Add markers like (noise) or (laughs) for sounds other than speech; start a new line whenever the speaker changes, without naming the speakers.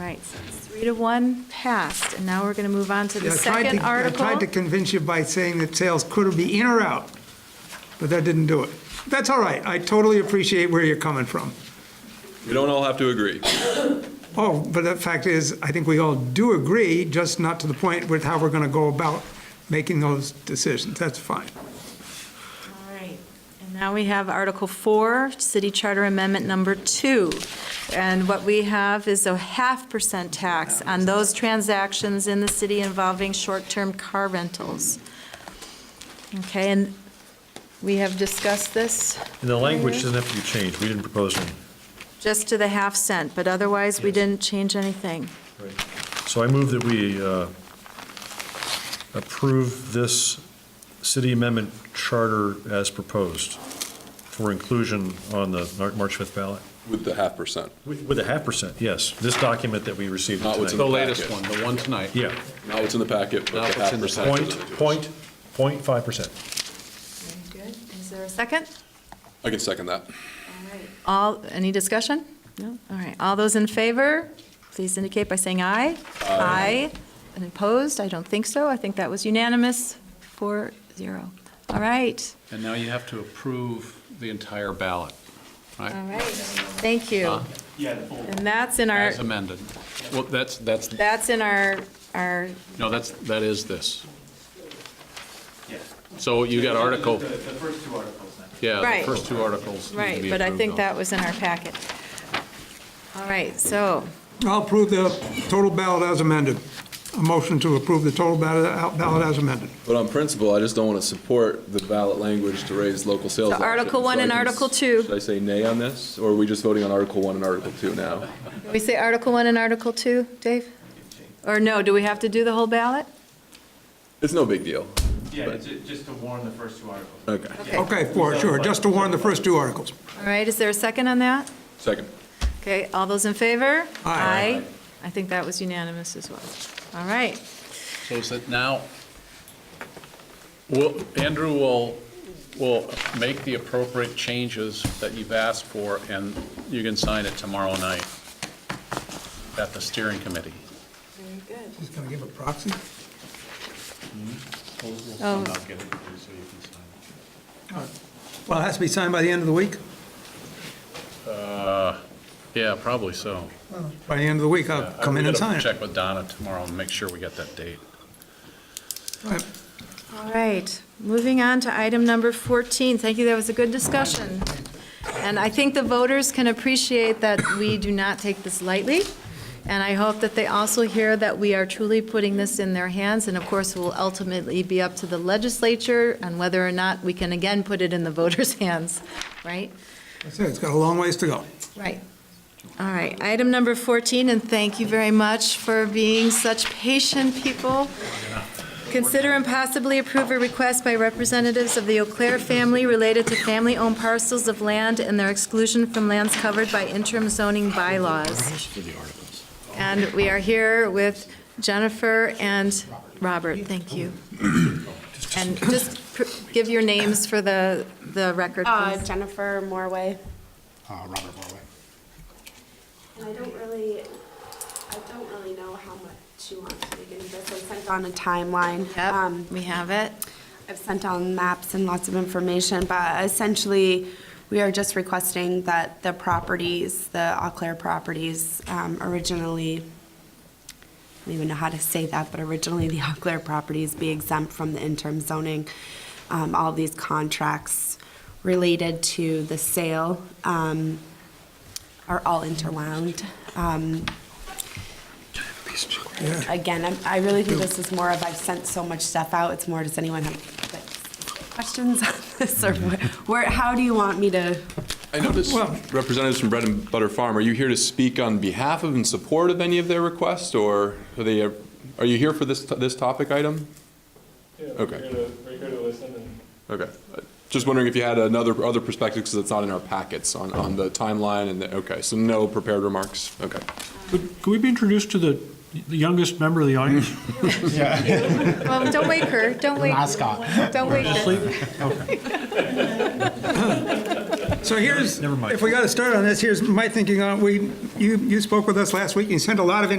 right, so it's three to one passed, and now we're going to move on to the
Yeah, I tried
second
to- I tried to
article.
convince you by saying that sales could be in or out, but that didn't do it. That's all right. I totally appreciate where you're coming from.
We don't all have to agree.
Oh, but the fact is, I think we all do agree, just not to the point with how we're going to go about making those decisions. That's fine.
All right, and now we have Article Four, City Charter Amendment Number Two. And what we have is a half percent tax on those transactions in the city involving short-term car rentals. Okay, and we have discussed this
And the language doesn't have to be changed, we didn't propose any.
just to the half cent, but otherwise, we
Yes.
didn't change anything.
So I move that we uh, approve this city amendment charter as proposed for inclusion on the Mar- March 5th ballot,
With the half percent,
with with a half percent, yes. This document that we received
Not what's
tonight.
in
The latest one, the one tonight.
Yeah,
not what's in the packet, but
Not
the
what's
half
in the
percent.
point, point, point five percent.
Very good. Is there a second?
I can second that.
All, any discussion? No? All right. All those in favor, please indicate by saying aye. Aye. And opposed? I don't think so. I think that was unanimous, four, zero. All right.
And now you have to approve the entire ballot,
All
right?
right. Thank you.
Huh?
And that's in our,
As amended. Well, that's, that's,
that's in our, our,
no, that's, that is this. So you got article,
The first two articles then.
yeah,
Right.
the first two articles need to
right,
be
but I
approved
think
on.
that was in our packet. All right, so,
I'll approve the total ballot as amended. A motion to approve the total ballot ballot as amended.
But on principle, I just don't want to support the ballot language to raise local sales.
So Article
tax.
one
So I
and
can-
Article two.
Should I say nay on this, or are we just voting on Article one and Article two now?
can we say Article 1 and Article 2, Dave? Or no, do we have to do the whole ballot?
It's no big deal.
Yeah, ju- just to warn the first two articles.
Okay.
Okay. All
Okay, for sure, just to warn the first two articles.
right, is there a second on that?
Second.
Okay, all those in favor?
Aye.
I think that was unanimous as well. All right.
So is it now, will, Andrew will, will make the appropriate changes that you've asked for, and you can sign it tomorrow night at the steering committee.
Very good.
Just going to give a proxy?
Oh.
I'll get it for you so you can sign it.
Well, it has to be signed by the end of the week?
Yeah, probably so.
By the end of the week, I'll
Yeah, I-
Oh, come
we
in and
gotta
sign it.
Check with Donna tomorrow and make sure we get that date.
All right, moving on to item number 14. Thank you, that was a good discussion. And I think the voters can appreciate that we do not take this lightly, and I hope that they also hear that we are truly putting this in their hands, and of course, it will ultimately be up to the legislature on whether or not we can again put it in the voters' (laughs) hands, right?
That's it, it's got a long ways to go.
Right. All right, item number 14, and thank you very much for being such patient people. Consider and possibly approve a request by representatives of the Eau Claire family related to family-owned parcels of land and their exclusion from lands covered by interim zoning bylaws. And we are here with Jennifer and Robert, thank you. And just pr- give your names for the, the record,
Uh,
please.
Jennifer Morway.
Uh, Robert Morway.
And I don't really, I don't really know how much she wants to begin this. I sent on a timeline. Um,
Yep, we have it.
I've sent on maps and lots of information, but essentially, we are just requesting that the properties, the Eau Claire properties um, originally, I don't even know how to say that, but originally the (laughs) Eau Claire properties be exempt from the interim zoning. Um, All these contracts related to the sale um, are all interwound. Um, again, I'm- I really think this is more of, I've sent so much stuff out, it's more, does anyone have like, questions on this, or wh- where, how do you want me to?
I noticed
Well-
representatives from Bread and Butter Farm, are you here to speak on behalf of, in support of any of their requests, or are they, are you here for this, this topic item?
Yeah,
Okay.
we're here to, we're here to listen and
Okay. Just wondering if you had another, other perspectives, because it's not in our packets on, on the timeline and the, okay, so no prepared remarks? Okay.
Could we be introduced to the the youngest member of the audience?
Well, don't wake her, don't wake,
Mascot.
don't wake her.
So here's,
Never mind.
if we got to start on this, here's my thinking on, it. we, you, you spoke with us last week, you sent a lot of